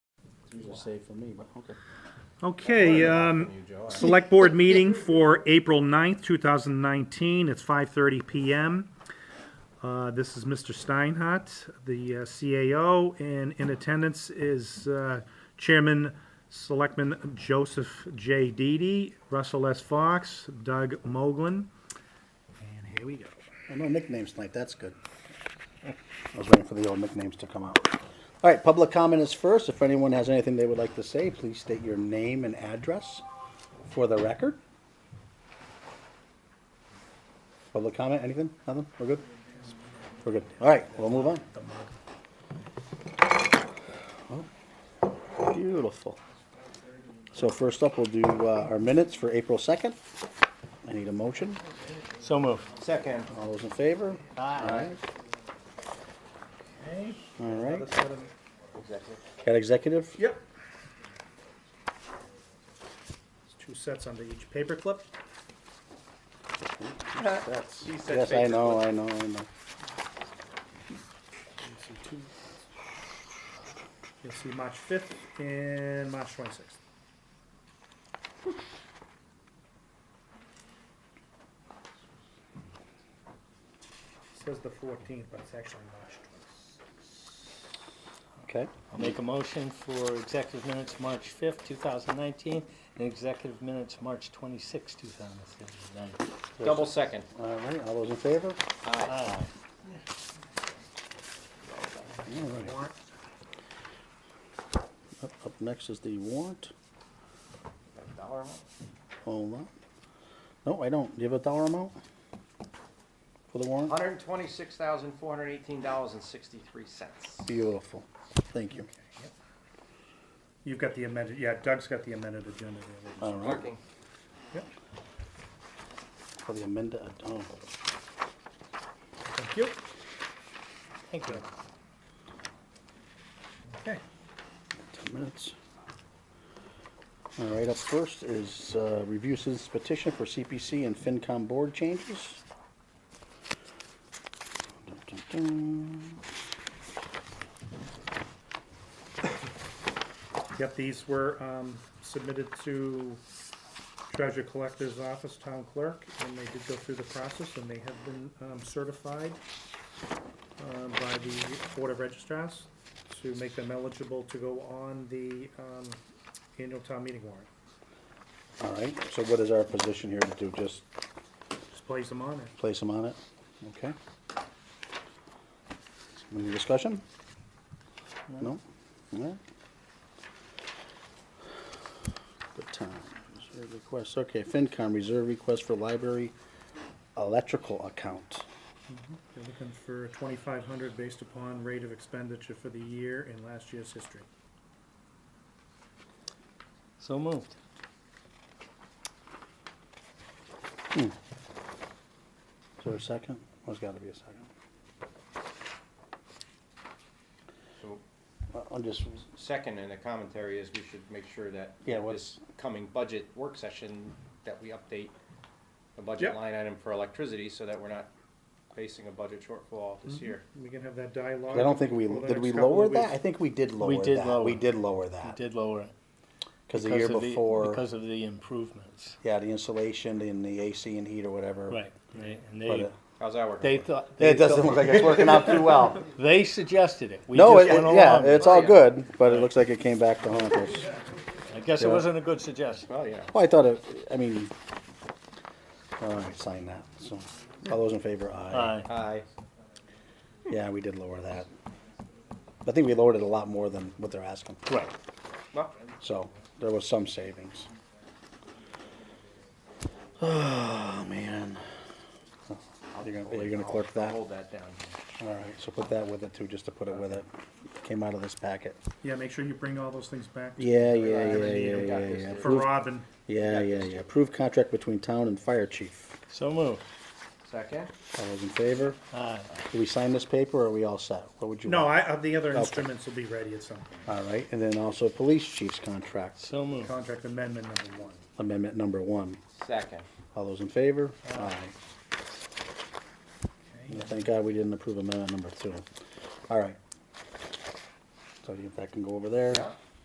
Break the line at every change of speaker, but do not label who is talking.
Usually saved for me, but okay.
Okay, um, select board meeting for April 9th, two thousand nineteen, it's five thirty PM. Uh, this is Mr. Steinhardt, the uh, CAO, and in attendance is, uh, Chairman Selectman Joseph J. Didi, Russell S. Fox, Doug Moglen. And here we go.
Oh, No nicknames tonight, that's good. I was waiting for the old nicknames to come out. All right, public comment is first. If anyone has anything they would like to say, please state your name and address for the record. Public comment, anything? Nothing? We're good? We're good. All right, we'll move on. Oh, Beautiful. So first up, we'll do uh, our minutes for April 2nd. I need a motion.
So moved. Second.
All those in favor?
Aye.
All right. Got executive?
Yep. Two sets under each paperclip.
That's- Yes, I know, I know, I know.
You'll see March fifth and March twenty-sixth. Says the fourteenth, but it's actually March
Okay,
I'll make a motion for executive minutes March fifth, two thousand nineteen, and executive minutes March twenty-sixth, two thousand nineteen.
Double second.
all right, all those in favor?
Aye.
All right.
Warrant.
Up, up next is the warrant. Hold on. No, I don't. Do you have a dollar amount? For the warrant?
Hundred and twenty-six thousand, four hundred and eighteen dollars and sixty-three cents.
Beautiful. Thank you.
You've got the amended, yeah, Doug's got the amended agenda there.
All right,
Working.
for the amended, oh,
Thank you.
Thank you.
Okay.
ten minutes. All right, up first is, uh, review citizens petition for CPC and FinCom board changes. Dun, dun, dun.
Yep, these were um, submitted to Treasure Collector's Office, Town Clerk, and they did go through the process, and they have been um, certified um, by the Board of Registrars to make them eligible to go on the um, annual town meeting warrant.
All right, so what is our position here to do? Just
Just place them on it.
place them on it? Okay. Any discussion? No? No? Good time. Reserve request, okay, FinCom, reserve request for library electrical account.
They're looking for twenty-five hundred based upon rate of expenditure for the year and last year's history.
So moved.
Is there a second? There's gotta be a second.
So,
I- I'm just,
second, and the commentary is we should make sure that
Yeah, what-
this coming budget work session, that we update the
Yep.
budget line item for electricity, so that we're not facing a budget shortfall this year.
We can have that dialogue.
I don't think we,
over the
did we
next couple of
lower that?
weeks.
I think we did lower that.
did lower.
We did lower
We
that.
did lower it.
Cause Uh, the
because
year
of
before.
Because of the improvements.
Yeah, the insulation and the AC and heat or whatever.
Right, right, and
But
they,
it,
How's that working?
they thought. they
it doesn't
thought-
look like it's working out too well.
They suggested it. We
no,
just
it,
went
it- yeah,
along.
it's all good, but it looks like it came back to haunt us.
I guess it
yeah.
wasn't a good suggestion.
Well, yeah.
Well, I thought it, I mean, all right, sign that. So, all those in favor, aye.
Aye.
Aye.
Yeah, we did lower that. I think we lowered it a lot more than what they're asking.
Right.
Well,
So, there was some savings. Oh, man. You're gonna, you're gonna clerk that?
hold that down.
All right, so put that with it too, just to put it with it. Came out of this packet.
Yeah, make sure you bring all those things back to-
Yeah, yeah, yeah,
Right,
yeah,
we
yeah,
got this.
yeah.
For
for
Approved-
Robin.
Yeah, yeah, yeah. Approved contract between town and fire chief.
So moved.
Second?
All those in favor?
Aye.
Do we sign this paper or are we all set? What would you?
No,
want?
I, uh, the other instruments will be ready at some point.
All right, and then also police chief's contract,
So moved.
Contract amendment number one.
amendment number one.
Second.
All those in favor? Aye. And Thank God we didn't approve amendment number two. All right. So you- that can go over there.
Yeah.